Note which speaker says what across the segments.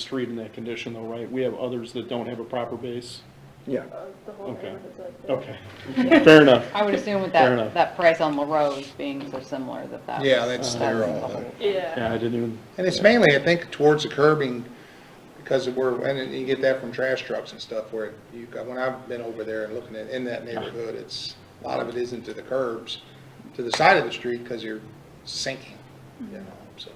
Speaker 1: street in that condition though, right? We have others that don't have a proper base?
Speaker 2: Yeah,
Speaker 3: The whole
Speaker 1: Okay.
Speaker 3: neighborhood's like that.
Speaker 1: Okay, fair enough.
Speaker 4: I would assume with
Speaker 1: Fair enough.
Speaker 4: that, that price on La Rose being so similar that that.
Speaker 5: Yeah, that's
Speaker 1: Uh-huh.
Speaker 5: their
Speaker 4: that's the
Speaker 5: own.
Speaker 4: whole-
Speaker 3: Yeah,
Speaker 1: Yeah, I didn't even,
Speaker 5: And it's mainly, I think, towards the curbing, because of where, and you get that from trash trucks and stuff, where you, got- when I've been over there and looking at, in that neighborhood, it's, a lot of it isn't to the curbs, to the side of the street, because you're sinking, you know, so.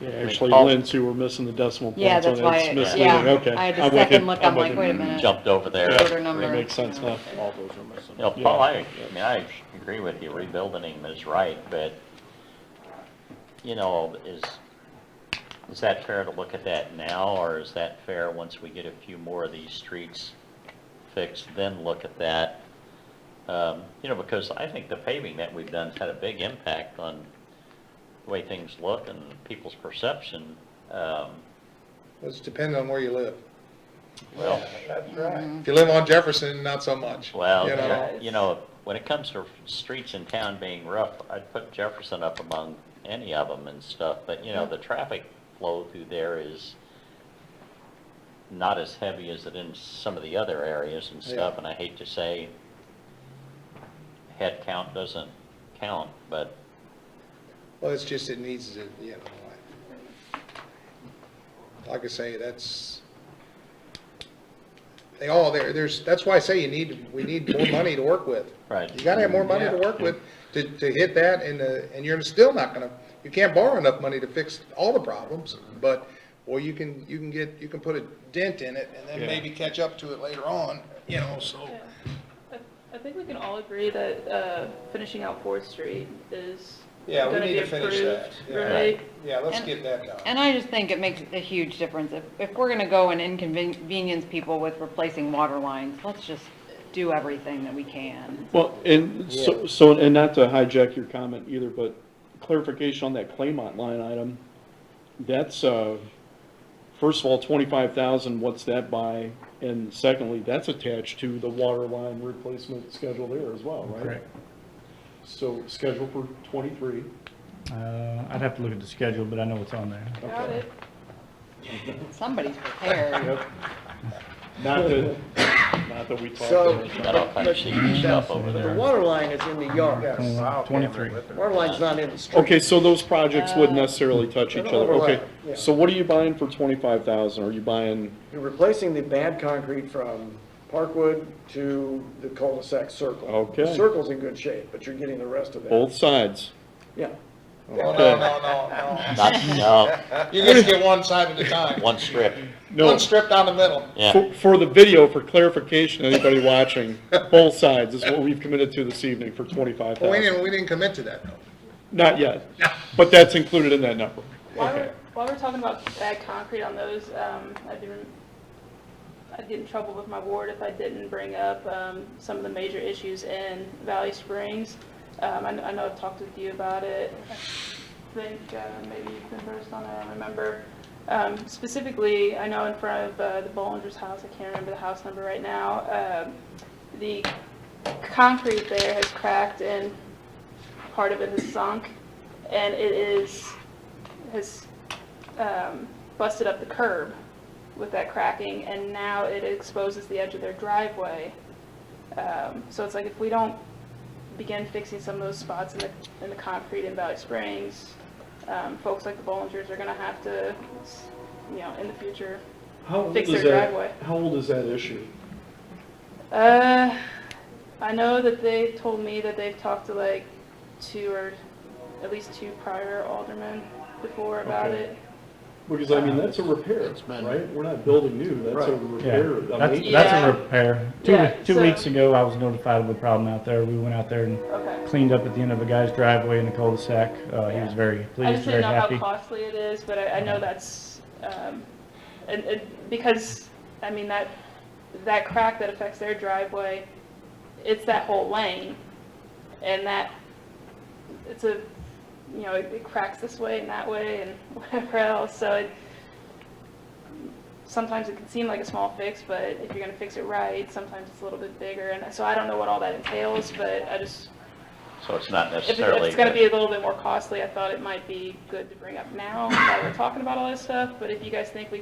Speaker 1: yeah, actually,
Speaker 6: Paul-
Speaker 1: Lynn, too, we're missing the decimal points.
Speaker 4: Yeah, that's
Speaker 1: on it.
Speaker 4: why,
Speaker 1: It's
Speaker 4: it-
Speaker 1: misleading.
Speaker 4: yeah,
Speaker 1: Okay,
Speaker 4: I had
Speaker 1: I'm
Speaker 4: to
Speaker 1: with
Speaker 4: second
Speaker 1: you.
Speaker 4: look,
Speaker 1: I'm
Speaker 4: I'm
Speaker 1: with
Speaker 4: like,
Speaker 1: you.
Speaker 4: wait a minute.
Speaker 6: jumped over there.
Speaker 4: Yeah. Order
Speaker 1: It
Speaker 4: number.
Speaker 1: Makes sense now.
Speaker 2: all those are missing.
Speaker 6: You know, Paul, I, I mean, I agree with you, rebuilding him is right, but, you know, is, is that fair to look at that now, or is that fair once we get a few more of these streets fixed, then look at that? Um, You know, because I think the paving that we've done's had a big impact on the way things look and people's perception. Um,
Speaker 5: It's depending on where you live.
Speaker 6: Well,
Speaker 5: That's right. If you live on Jefferson, not so much. you know.
Speaker 6: Well, you know, when it comes to streets in town being rough, I'd put Jefferson up among any of them and stuff, but you know, the traffic flow through there is not as heavy as it in some of the other areas and stuff,
Speaker 5: Yeah.
Speaker 6: and I hate to say head count doesn't count, but
Speaker 5: Well, it's just, it needs to, you know, like- like I say, that's, they all, there, there's, that's why I say you need, we need more money to work with.
Speaker 6: Right.
Speaker 5: You gotta have more money to
Speaker 6: Yeah.
Speaker 5: work with to, to hit that and, uh, and you're still not gonna, you can't borrow enough money to fix all the problems, but, or you can, you can get, you can put a dent in it and then
Speaker 1: Yeah.
Speaker 5: maybe catch up to it later on, you know, so.
Speaker 3: yeah. I- I think we can all agree that uh, finishing out Fourth Street is
Speaker 5: Yeah, we
Speaker 3: gonna
Speaker 5: need
Speaker 3: be
Speaker 5: to finish that.
Speaker 3: approved,
Speaker 5: Yeah.
Speaker 3: Right?
Speaker 5: Yeah, let's
Speaker 4: And-
Speaker 5: get that done.
Speaker 4: And I just think it makes a huge difference. If, if we're gonna go and inconvenience people with replacing water lines, let's just do everything that we can.
Speaker 1: Well, and so, so, and not to hijack your comment either, but clarification on that Claymont line item. That's, uh, first of all, twenty-five thousand, what's that by? And secondly, that's attached to the water line replacement schedule there as well, right?
Speaker 7: Correct.
Speaker 1: So schedule for twenty-three.
Speaker 7: Uh, I'd have to look at the schedule, but I know it's on there.
Speaker 3: Got it.
Speaker 4: Somebody's prepared.
Speaker 1: Yep. Not that, not that we talked.
Speaker 2: So-
Speaker 1: about it.
Speaker 6: got all kinds of shady stuff over
Speaker 2: The
Speaker 6: there.
Speaker 2: water line is in the yard.
Speaker 7: Uh, 23.
Speaker 2: Water line's not in the street.
Speaker 1: Okay, so those projects wouldn't necessarily touch each
Speaker 2: They
Speaker 1: other,
Speaker 2: don't
Speaker 1: okay.
Speaker 2: overlap, yeah.
Speaker 1: So what are you buying for twenty-five thousand? Are you buying,
Speaker 2: You're replacing the bad concrete from Parkwood to the cul-de-sac circle.
Speaker 1: Okay.
Speaker 2: The circle's in good shape, but you're getting the rest of it.
Speaker 1: both sides?
Speaker 2: Yeah.
Speaker 5: No, no, no, no,
Speaker 6: Not, no,
Speaker 5: no. You just get one side at a time.
Speaker 6: one strip,
Speaker 1: No,
Speaker 5: One strip down the middle.
Speaker 6: yeah.
Speaker 1: for, for the video, for clarification, anybody watching, both sides is what we've committed to this evening for twenty-five
Speaker 5: Well, We
Speaker 1: thousand.
Speaker 5: didn't, we didn't commit to that, though.
Speaker 1: Not yet, but that's included in that number.
Speaker 3: While
Speaker 1: Okay.
Speaker 3: we're, while we're talking about bad concrete on those, um, I'd be, I'd get in trouble with my ward if I didn't bring up, um, some of the major issues in Valley Springs. Um, I, kn- I know I've talked with you about it. I think, uh, maybe you've been first on it, I don't remember. Um, specifically, I know in front of, uh, the Bollinger's house, I can't remember the house number right now, um, the concrete there has cracked and part of it has sunk. And it is has um, busted up the curb with that cracking, and now it exposes the edge of their driveway. Um, so it's like if we don't begin fixing some of those spots in the, in the concrete in Valley Springs, um, folks like the Bollingers are gonna have to, you know, in the future,
Speaker 1: How old
Speaker 3: Fix
Speaker 1: is
Speaker 3: their
Speaker 1: that-
Speaker 3: driveway.
Speaker 1: How old is that issue?
Speaker 3: Uh, I know that they told me that they've talked to like two or at least two prior aldermen before about
Speaker 1: Okay.
Speaker 3: it.
Speaker 1: Because I mean, that's a repair, right? We're not building new, that's a repair.
Speaker 7: Yeah,
Speaker 1: a
Speaker 7: that's,
Speaker 1: maintenance.
Speaker 7: that's
Speaker 3: Yeah.
Speaker 7: a repair. Two,
Speaker 3: Yeah,
Speaker 7: two
Speaker 3: so-
Speaker 7: weeks ago, I was notified of a problem out there. We went out there and
Speaker 3: Okay.
Speaker 7: cleaned up at the end of a guy's driveway in the cul-de-sac. Uh, he was very
Speaker 3: I
Speaker 7: pleased,
Speaker 3: just didn't
Speaker 7: very
Speaker 3: know
Speaker 7: happy.
Speaker 3: how costly it is, but I, I know that's, um, and, and because, I mean, that, that crack that affects their driveway, it's that whole lane. And that, it's a, you know, it it cracks this way and that way and whatever else, so it, sometimes it can seem like a small fix, but if you're gonna fix it right, sometimes it's a little bit bigger, and so I don't know what all that entails, but I just
Speaker 6: So it's not
Speaker 3: If
Speaker 6: necessarily.
Speaker 3: if it's gonna be a little bit more costly, I thought it might be good to bring up now while we're talking about all this stuff, but if you guys think we